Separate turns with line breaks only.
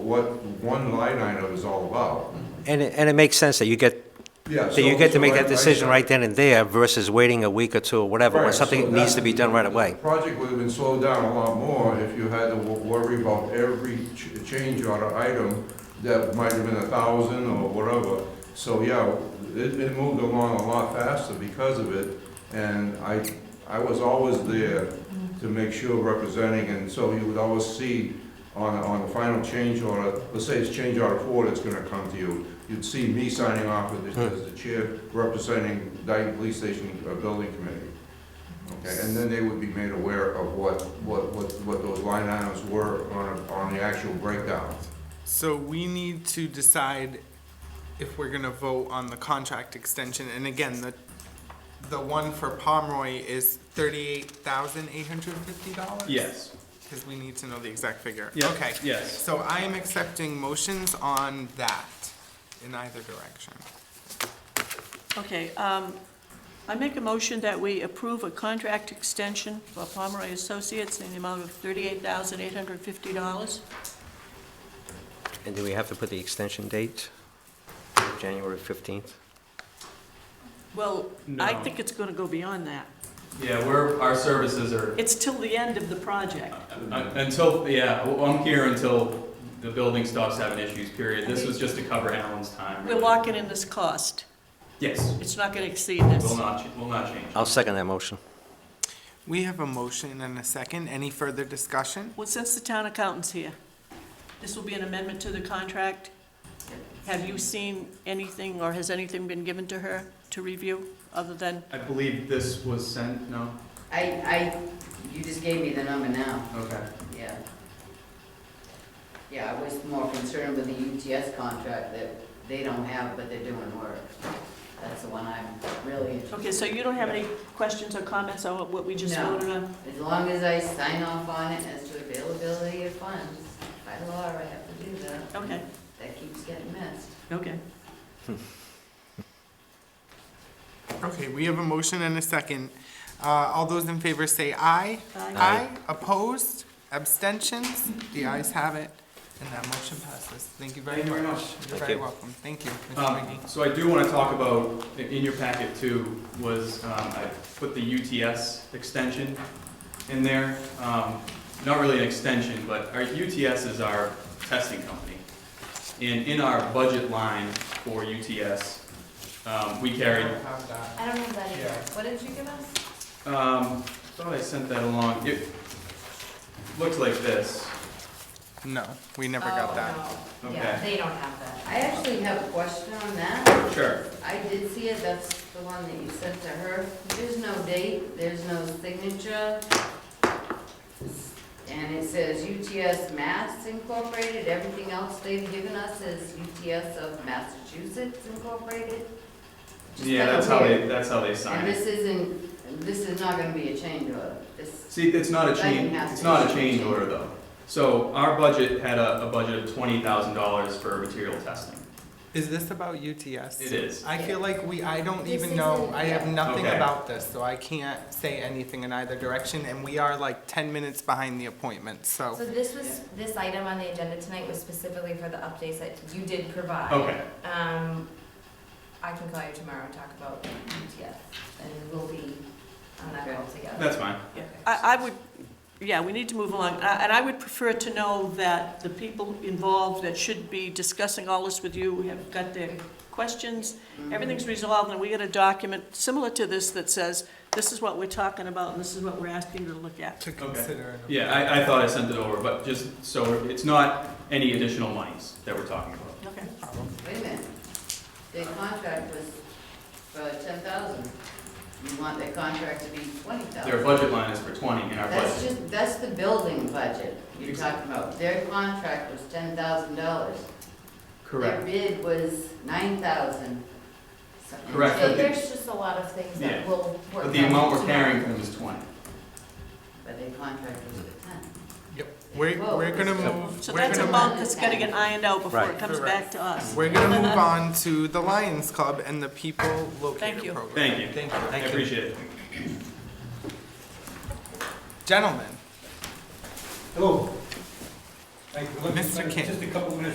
what one line item is all about.
And it, and it makes sense that you get,
Yeah.
that you get
so-
to make
so I-
that decision
I-
right then and there versus waiting a week or two or whatever, when
Right, so
something needs to be done right away.
The project would have been slowed down a lot more if you had to wo- worry about every ch- change order item that might have been a thousand or whatever. So, yeah, it, it moved along a lot faster because of it, and I, I was always there to make sure representing, and so you would always see on, on the final change order, let's say it's change order four that's gonna come to you, you'd see me signing off with
Hmm.
it as the chair representing Dayton Police Station uh, Building Committee. Okay, and then they would be made aware of what, what, what, what those line items were on, a- on the actual breakdown.
So we need to decide if we're gonna vote on the contract extension, and again, the, the one for Pomeroy is thirty-eight thousand eight hundred fifty dollars?
Yes.
Cause we need to know the exact figure.
Yeah,
Okay.
yes.
So I am accepting motions on that in either direction.
Okay, um, I make a motion that we approve a contract extension for Pomeroy Associates in the amount of thirty-eight thousand eight hundred fifty dollars.
And do we have to put the extension date? January 15th?
Well, I
No.
think it's gonna go beyond that.
Yeah, we're, our services are,
It's till the end of the project.
uh, until, yeah, well, I'm here until the building stops having issues, period. This was just to cover Alan's time.
We're locking in this cost.
Yes,
It's not gonna exceed
will
this.
not, ch- will not change.
I'll second that motion.
We have a motion and a second. Any further discussion?
Well, since the town accountant's here, this will be an amendment to the contract. Have you seen anything, or has anything been given to her to review, other than,
I believe this was sent, no?
I, I, you just gave me the number now,
Okay.
yeah. Yeah, I was more concerned with the UTS contract that they don't have, but they're doing work. That's the one I'm really interested
okay, so you don't have any questions or comments on what we just
No.
voted on?
As long as I sign off on it as to availability of funds, by law, I have to do that.
Okay,
That keeps getting missed.
okay.
Okay, we have a motion and a second. Uh, all those in favor say aye.
Aye.
Aye, opposed, abstentions, the ayes have it, and that motion passes. Thank you very
Thank you very
much.
much.
You're
Thank
very
you.
welcome. Thank you, Mr.
Um,
McGee.
So I do want to talk about, i- in your packet too, was um, I put the UTS extension in there. Um, Not really an extension, but our UTS is our testing company. And in our budget line for UTS, um, we carried,
I don't have that.
I don't have that either.
Yeah.
What did you give us?
um, thought I sent that along. It looks like this.
No, we never got
Oh,
that.
no.
Okay.
Yeah, they don't have that.
I actually have a question on that.
Sure.
I did see it, that's the one that you sent to her. There's no date, there's no signature. And it says UTS Mass Incorporated, everything else they've given us is UTS of Massachusetts Incorporated. Just
Yeah,
kinda
that's how they,
weird.
that's how they sign
And
it.
this isn't, this is not gonna be a change order, this,
See, it's not a
That didn't
change,
have
it's
to
not a
be
change
changed.
order though. So our budget had a, a budget of twenty thousand dollars for material testing.
Is this about UTS?
It is.
I feel like we, I don't
This
even know,
isn't-
I have
yeah.
nothing
Okay.
about this, so I can't say anything in either direction, and we are like ten minutes behind the appointment, so.
So this was, this item on the agenda tonight was specifically for the updates that you did provide.
Okay,
Um, I can call you tomorrow and talk about UTS, and we'll be on that call together.
that's fine.
Yeah, I, I would, yeah, we need to move along, A- and I would prefer to know that the people involved that should be discussing all this with you have got their questions, everything's resolved, and we get a document similar to this that says, this is what we're talking about, and this is what we're asking you to look at.
To consider. it.
Yeah, I, I thought I sent it over, but just, so it's not any additional monies that we're talking about.
Okay.
wait a minute. Their contract was for ten thousand. You want their contract to be twenty thousand.
Their budget line is for twenty and our
That's
budget,
just, that's the building budget you're
Exact-
talking about. Their contract was ten thousand dollars.
correct.
Their bid was nine thousand.
Correct,
So
but the-
there's just a lot of things
Yeah.
that will work.
But the amount we're
out.
carrying from them is twenty.
But their contract was for ten.
Yep, we're,
Whoa.
we're gonna move,
So
we're
that's a
gonna,
mo-
bump that's gotta get ironed out before it
Right.
comes back to us.
we're gonna move on to the Lions Club and the People
Thank
Locator
you.
Program.
Thank you.
Thank you.
I appreciate it.
Gentlemen,
Hello.
Thank you. Let me-
Mr. King.
Just a couple minutes